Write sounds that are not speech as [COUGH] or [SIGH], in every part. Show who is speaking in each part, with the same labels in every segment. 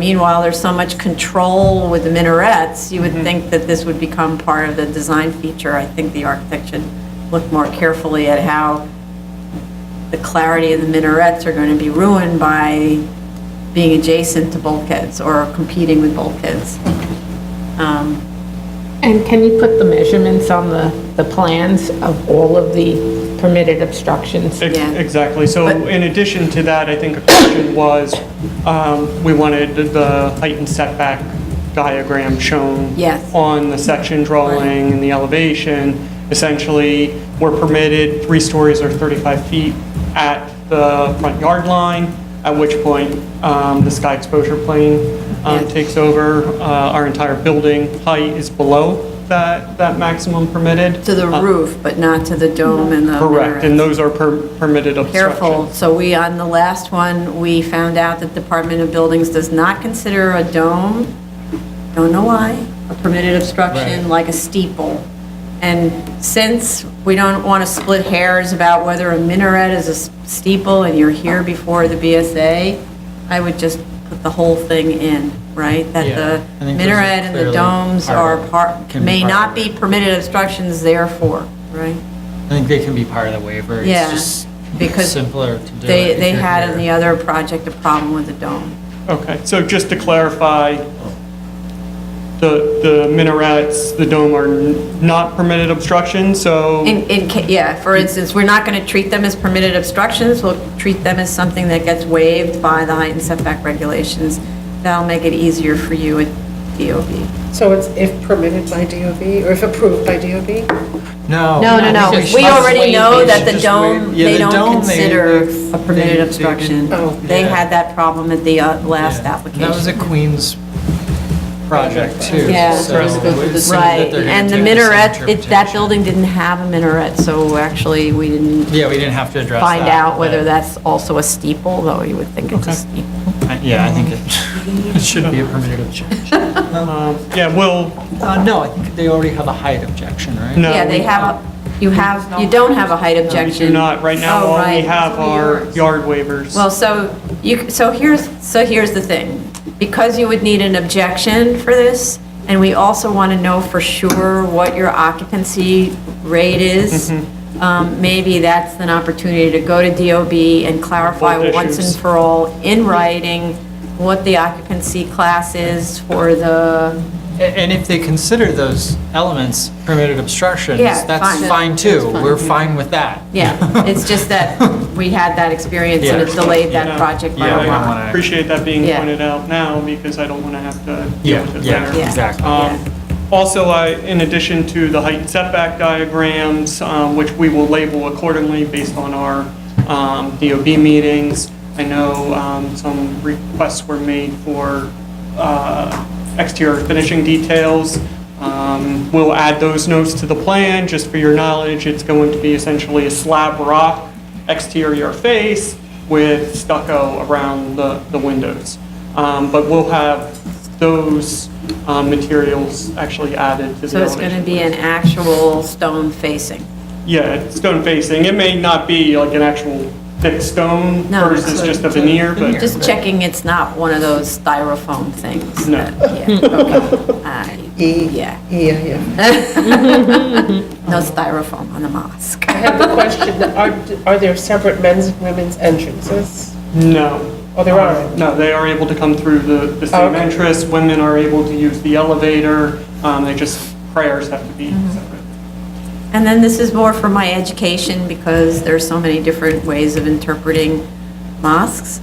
Speaker 1: Meanwhile, there's so much control with the minarets, you would
Speaker 2: Mm-hmm.
Speaker 1: think that this would become part of the design feature. I think the architect should look more carefully at how the clarity of the minarets are going to be ruined by being adjacent to bulkheads or competing with
Speaker 2: [LAUGHS]
Speaker 1: bulkheads. Um,
Speaker 3: And can you put the measurements on the, the plans of all of the permitted obstructions?
Speaker 2: Ex-
Speaker 1: Yeah.
Speaker 2: Exactly. So
Speaker 1: But-
Speaker 2: in addition to that, I think a question was, um, we wanted the height and setback diagram shown
Speaker 1: Yes.
Speaker 2: on the section drawing and the elevation. Essentially, we're permitted three stories or 35 feet at the front yard line, at which point um, the sky exposure plane um,
Speaker 1: Yes.
Speaker 2: takes over. Uh, Our entire building height is below that, that maximum permitted.
Speaker 1: To the
Speaker 2: Uh,
Speaker 1: roof, but not to the dome and the
Speaker 2: Correct,
Speaker 1: minarets.
Speaker 2: and those are per- permitted obstructions.
Speaker 1: Careful, so we, on the last one, we found out that Department of Buildings does not consider a dome, don't know why, a permitted obstruction like a steeple. And since we don't want to split hairs about whether a minaret is a s- steeple and you're here before the BSA, I would just put the whole thing in, right? That
Speaker 4: Yeah, I
Speaker 1: the
Speaker 4: think those are
Speaker 1: minaret and the
Speaker 4: clearly
Speaker 1: domes
Speaker 4: part
Speaker 1: are
Speaker 4: of it,
Speaker 1: part,
Speaker 4: can be
Speaker 1: may
Speaker 4: part of
Speaker 1: not
Speaker 4: it.
Speaker 1: be permitted obstructions therefore, right?
Speaker 4: I think they can be part of the waiver.
Speaker 1: Yeah,
Speaker 4: It's
Speaker 1: because
Speaker 4: just simpler to do
Speaker 1: They,
Speaker 4: it.
Speaker 1: they had in the other project a problem with the dome.
Speaker 2: Okay, so just to clarify, the, the minarets, the dome are n- not permitted obstructions, so,
Speaker 4: Oh.
Speaker 1: In, in, ca- yeah, for instance, we're not going to treat them as permitted obstructions, we'll treat them as something that gets waived by the height and setback regulations. That'll make it easier for you at DOB.
Speaker 5: So it's if permitted by DOB, or if approved by DOB?
Speaker 4: No.
Speaker 1: No, no, no.
Speaker 4: I think it's
Speaker 1: We
Speaker 4: Oh, just
Speaker 1: already
Speaker 4: waive-
Speaker 1: know
Speaker 4: they
Speaker 1: that
Speaker 4: should
Speaker 1: the
Speaker 4: just
Speaker 1: dome,
Speaker 4: waive- yeah,
Speaker 1: they
Speaker 4: the
Speaker 1: don't
Speaker 4: dome, they-
Speaker 1: consider
Speaker 4: they-
Speaker 1: a permitted
Speaker 4: they- they
Speaker 1: obstruction.
Speaker 4: didn't-
Speaker 5: Oh.
Speaker 1: They
Speaker 4: Yeah.
Speaker 1: had that problem at the uh, last
Speaker 4: Yeah.
Speaker 1: application.
Speaker 4: That was a Queens project too.
Speaker 1: Yeah.
Speaker 4: so
Speaker 2: Right.
Speaker 4: it was something that
Speaker 1: Right,
Speaker 4: they're gonna
Speaker 1: and the
Speaker 4: do the same
Speaker 1: minaret, it- that
Speaker 4: interpretation.
Speaker 1: building didn't have a minaret, so actually, we didn't
Speaker 4: Yeah, we didn't have to address that.
Speaker 1: find out whether
Speaker 4: but
Speaker 1: that's also a steeple, though you would think it's a
Speaker 2: Okay.
Speaker 1: steeple.
Speaker 4: I- Yeah, I think it [LAUGHS] it should be a permitted objection.
Speaker 2: um, yeah, we'll,
Speaker 4: Uh, no, I think they already have a height objection, right?
Speaker 2: No.
Speaker 1: Yeah, they have, a you have, you don't have a height
Speaker 2: we
Speaker 1: objection.
Speaker 2: do not, right now,
Speaker 1: Oh,
Speaker 2: all we
Speaker 1: right.
Speaker 2: have are yard waivers.
Speaker 1: Well, so you, so here's, so here's the thing. Because you would need an objection for this, and we also want to know for sure what your occupancy rate is,
Speaker 2: Mm-hmm.
Speaker 1: um, maybe that's an opportunity to go to DOB and clarify
Speaker 2: Both
Speaker 1: once and
Speaker 2: issues.
Speaker 1: for all in writing what the occupancy class is for the,
Speaker 4: A- And if they consider those elements permitted obstructions,
Speaker 1: Yeah,
Speaker 4: that's
Speaker 1: fine.
Speaker 4: fine too. We're fine with that.
Speaker 1: yeah. It's just that we had that experience and it
Speaker 4: Yeah.
Speaker 1: delayed that
Speaker 2: Yeah.
Speaker 1: project by
Speaker 4: Yeah,
Speaker 1: a
Speaker 4: I
Speaker 1: lot.
Speaker 4: wanna-
Speaker 2: Appreciate that being
Speaker 1: Yeah.
Speaker 2: pointed out now, because I don't want to have to deal with it
Speaker 4: Yeah,
Speaker 2: later.
Speaker 1: Yeah.
Speaker 4: exactly.
Speaker 2: Um, Also, I, in addition to the height and setback diagrams, um, which we will label accordingly based on our um, DOB meetings, I know um, some requests were made for uh, exterior finishing details. Um, We'll add those notes to the plan, just for your knowledge, it's going to be essentially a slab rock exterior face with stucco around the the windows. Um, But we'll have those um, materials actually added to the
Speaker 1: So it's going to
Speaker 2: elevation.
Speaker 1: be an actual stone facing.
Speaker 2: Yeah, it's stone facing. It may not be like an actual thick stone
Speaker 1: No,
Speaker 2: versus
Speaker 1: it's
Speaker 2: just a veneer, but
Speaker 1: Just checking it's not one of those styrofoam things.
Speaker 2: No.
Speaker 1: that- Yeah, okay. I- Yeah,
Speaker 5: Yeah, yeah.
Speaker 1: no styrofoam on the mosque.
Speaker 6: I have a question. Are, are there separate men's and women's entrances?
Speaker 2: no.
Speaker 6: Oh, there are. Oh,
Speaker 2: No, they are able to come through the the same
Speaker 6: Okay.
Speaker 2: entrance. Women are able to use the elevator. Um, They just, prayers have to be
Speaker 1: Mm-hmm.
Speaker 2: separate.
Speaker 1: And then this is more for my education because there's so many different ways of interpreting mosques.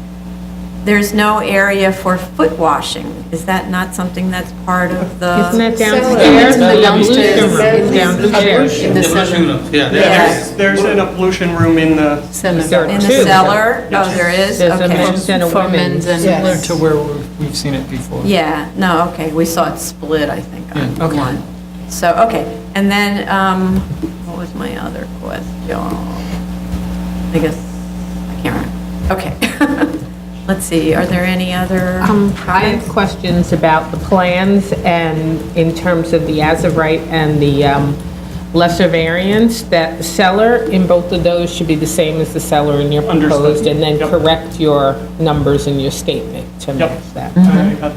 Speaker 1: There's no area for foot washing. Is that not something that's part of the?
Speaker 3: Isn't it
Speaker 5: it's
Speaker 3: downstairs? Downstairs.
Speaker 5: the downstairs.
Speaker 3: It's down downstairs.
Speaker 5: In the seven.
Speaker 4: Yeah,
Speaker 1: Yes.
Speaker 2: There's an pollution room in the
Speaker 3: There are
Speaker 1: In the
Speaker 3: two.
Speaker 1: cellar? Oh, there is?
Speaker 3: There's a
Speaker 1: Okay.
Speaker 3: men's and a women's.
Speaker 4: Similar to where we've- we've seen it before.
Speaker 1: Yeah, no, okay, we saw it split, I think, on
Speaker 4: Yeah, okay.
Speaker 1: one. So, okay, and then, um, what was my other question? I guess, I can't remember. Okay. [LAUGHS] Let's see, are there any other?
Speaker 3: Um, I have questions about the plans and in terms of the as-of-right and the um, lesser variance, that the cellar in both of those should be the same as the cellar in your
Speaker 2: Understood.
Speaker 3: proposed, and then
Speaker 2: Yep.
Speaker 3: correct your numbers in your statement to
Speaker 2: Yep. Uh,
Speaker 3: match that.
Speaker 1: Mm-hmm.
Speaker 2: I got